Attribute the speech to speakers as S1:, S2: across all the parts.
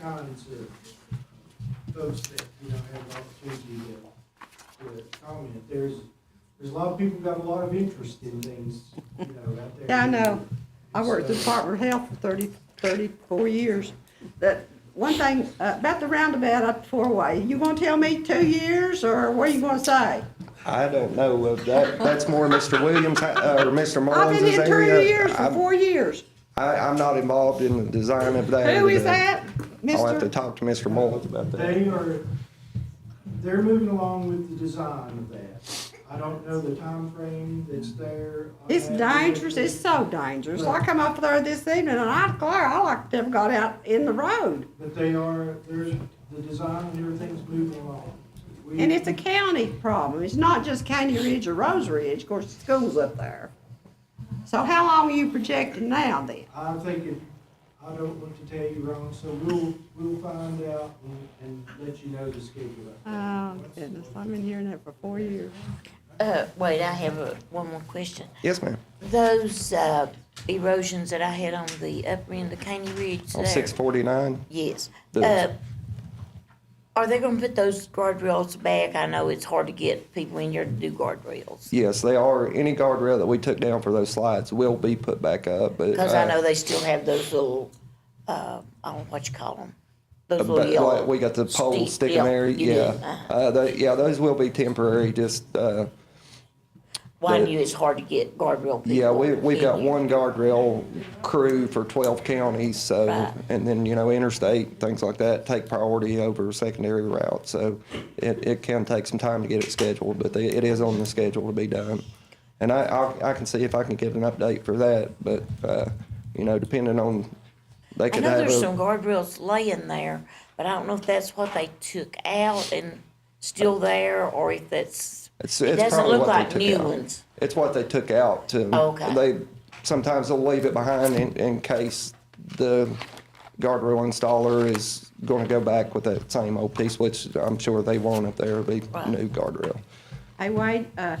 S1: kinds of folks that, you know, have the opportunity to, to comment. There's, there's a lot of people got a lot of interest in things, you know, out there.
S2: Yeah, I know. I worked at the
S1: So-
S2: Department of Health for 30, 34 years. That, one thing uh, about the roundabout up four-way, you gonna tell me two years, or what are you gonna say?
S3: I don't know of that. That's more Mr. Williams uh, or Mr.
S2: I've
S3: Mullins'
S2: been
S3: area.
S2: in two years for
S3: I'm-
S2: four years.
S3: I, I'm not involved in the design of that.
S2: Who is that,
S3: I'll have to
S2: mister?
S3: talk to Mr. Mullins about that.
S1: They are, they're moving along with the design of that. I don't know the time frame that's there. on
S2: It's
S1: that.
S2: dangerous, it's so dangerous. I come up there this evening, and I declare, I like to have got out in the road.
S1: But they are, there's, the design and everything's moving along. We-
S2: And it's a county problem. It's not just Caney Ridge or Rose Ridge. Of course, the school's up there. So how long are you projecting now then?
S1: I think it, I don't want to tell you wrong, so we'll, we'll find out and, and let you know the schedule.
S2: Oh goodness, I've been hearing that for four years.
S4: Uh, wait, I have a, one more question.
S3: Yes, ma'am.
S4: Those, uh, erosions that I had on the upper end of Caney Ridge
S3: On
S4: there.
S3: six forty-nine.
S4: Yes.
S3: The-
S4: Uh, are they gonna put those guardrails back? I know it's hard to get people in here to do guardrails.
S3: Yes, they are. Any guardrail that we took down for those slides will be put back up, but.
S4: Cause I
S3: uh,
S4: know they still have those little, uh, I don't know what you call them. Those
S3: Uh, But
S4: little yellow.
S3: like, we got the pole
S4: stick-
S3: sticking
S4: yeah,
S3: there,
S4: you do.
S3: yeah.
S4: Uh-huh.
S3: Uh, tho- yeah, those will be temporary, just, uh,
S4: Well, I
S3: the-
S4: knew it's hard to get guardrail people.
S3: yeah, we, we've
S4: in
S3: got
S4: here.
S3: one guardrail crew for twelve counties, so,
S4: Right.
S3: and then, you know, interstate, things like that, take priority over secondary routes, so it, it can take some time to get it scheduled, but they, it is on the schedule to be done. And I, I'll- I can see if I can get an update for that, but, uh, you know, depending on, they
S4: I
S3: could
S4: know
S3: have
S4: there's some
S3: a,
S4: guardrails laying there, but I don't know if that's what they took out and still there, or if that's,
S3: It's-
S4: it
S3: it's
S4: doesn't
S3: probably
S4: look
S3: what they
S4: like
S3: took
S4: new
S3: out.
S4: ones.
S3: it's what they took out to.
S4: Okay.
S3: They, sometimes they'll leave it behind in, in case the guardrail installer is gonna go back with that same old piece, which I'm sure they won't if there'll be
S4: Right.
S3: new guardrail.
S2: Hey Wade, uh,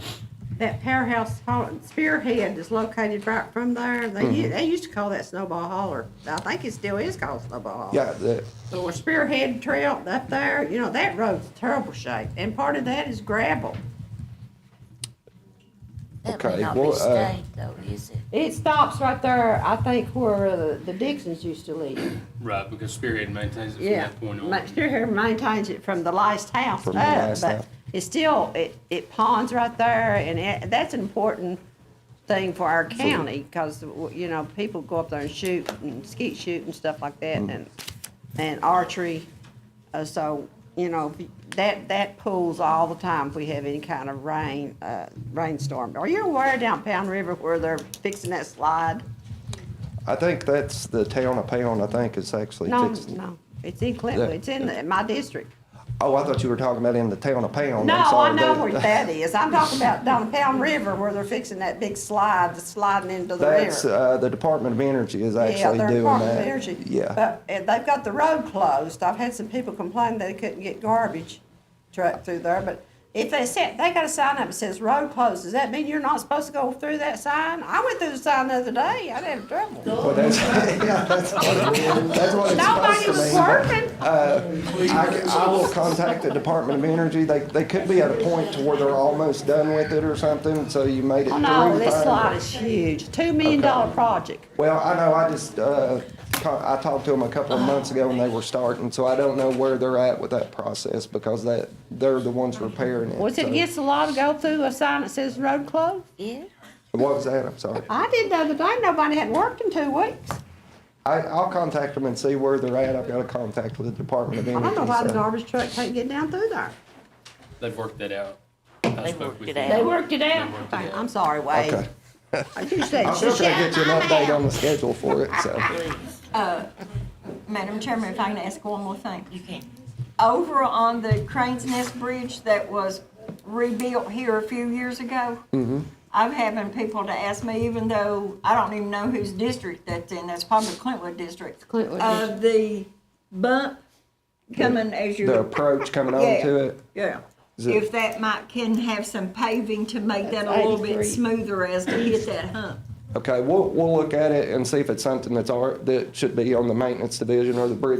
S2: that powerhouse hall- spearhead is located right from there. They, u- they used to call that Snowball Holler. I think it still is called Snowball Holler.
S3: Yeah, the,
S2: So a spearhead trail up there, you know, that road's terrible shape, and part of that is gravel.
S4: That may
S3: Okay,
S4: not be
S3: well, uh,
S4: state though, is it?
S2: It stops right there, I think, where uh, the Dixons used to live.
S5: Right, because Spearhead maintains it from
S2: Yeah,
S5: that point on.
S2: Ma- Spearhead maintains it from the last house
S3: From the
S2: up,
S3: last
S2: but
S3: house.
S2: it's still, it, it ponds right there, and it, that's an important thing for our county, because, you know, people go up there and shoot, and skeet shoot and stuff like that,
S3: Mm.
S2: and, and archery. Uh, so, you know, that, that pools all the time if we have any kind of rain, uh, rainstorm. Are you aware down Pound River where they're fixing that slide?
S3: I think that's the town of Pound, I think, is actually
S2: No,
S3: fixing.
S2: no, it's in Clinton, it's in the- my district.
S3: Oh, I thought you were talking about in the town of Pound. I'm
S2: No, I
S3: sorry,
S2: know
S3: that-
S2: where that is. I'm talking about down Pound River where they're fixing that big slide, that's sliding into the
S3: That's,
S2: river.
S3: uh, the Department of Energy is
S2: Yeah,
S3: actually
S2: they're
S3: doing
S2: Department of
S3: that.
S2: Energy.
S3: Yeah,
S2: But uh, they've got the road closed. I've had some people complain they couldn't get garbage truck through there, but if they said, they got a sign up that says road closed, does that mean you're not supposed to go through that sign? I went through the sign the other day. I didn't have trouble.
S3: well, that's, yeah, that's what it, that's what it's supposed
S2: Nobody
S3: to
S2: was
S3: mean, but-
S2: working.
S3: I, I will contact the Department of Energy. They, they could be at a point to where they're almost done with it or something, so you made it
S2: Oh,
S3: through.
S2: no, this
S3: fine.
S2: slide is huge. Two million dollar project.
S3: Well, I know, I just, uh, co- I talked to them a couple of months ago and they were starting, so I don't know where they're at with that process because that, they're the ones repairing it.
S2: Was it
S3: so-
S2: against the law to go through a sign that says road closed?
S4: Yeah,
S3: What was that? I'm sorry.
S2: I did the other day, nobody had worked in two weeks.
S3: I, I'll contact them and see where they're at. I've got a contact with the Department of
S2: I
S3: Energy.
S2: don't know why the
S3: so-
S2: garbage truck can't get down through there.
S5: They've worked that out. They
S4: worked it out.
S2: They worked it out. Fine, I'm sorry, Wade.
S3: Okay.
S2: I do say,
S3: I'm still
S2: shut
S3: trying to get you an
S2: my
S3: update
S2: mouth.
S3: on the schedule for it, so.
S6: Madam Chairman, if I can ask one more thing.
S4: you can.
S6: Over on the Crane's Nest Bridge that was rebuilt here a few years ago,
S3: Mm-hmm.
S6: I'm having people to ask me, even though I don't even know whose district that's in, that's probably Clintwood District.
S2: Clintwood
S6: Of the bump coming as
S3: The
S6: you,
S3: approach coming on
S6: Yeah.
S3: to it.
S6: yeah.
S3: Is it-
S6: If that might, can have some paving to make that a
S2: That's
S6: little bit
S2: 83.
S6: smoother as to hit that hump.
S3: Okay, we'll, we'll look at it and see if it's something that's, our- that should be on the maintenance division or the bridge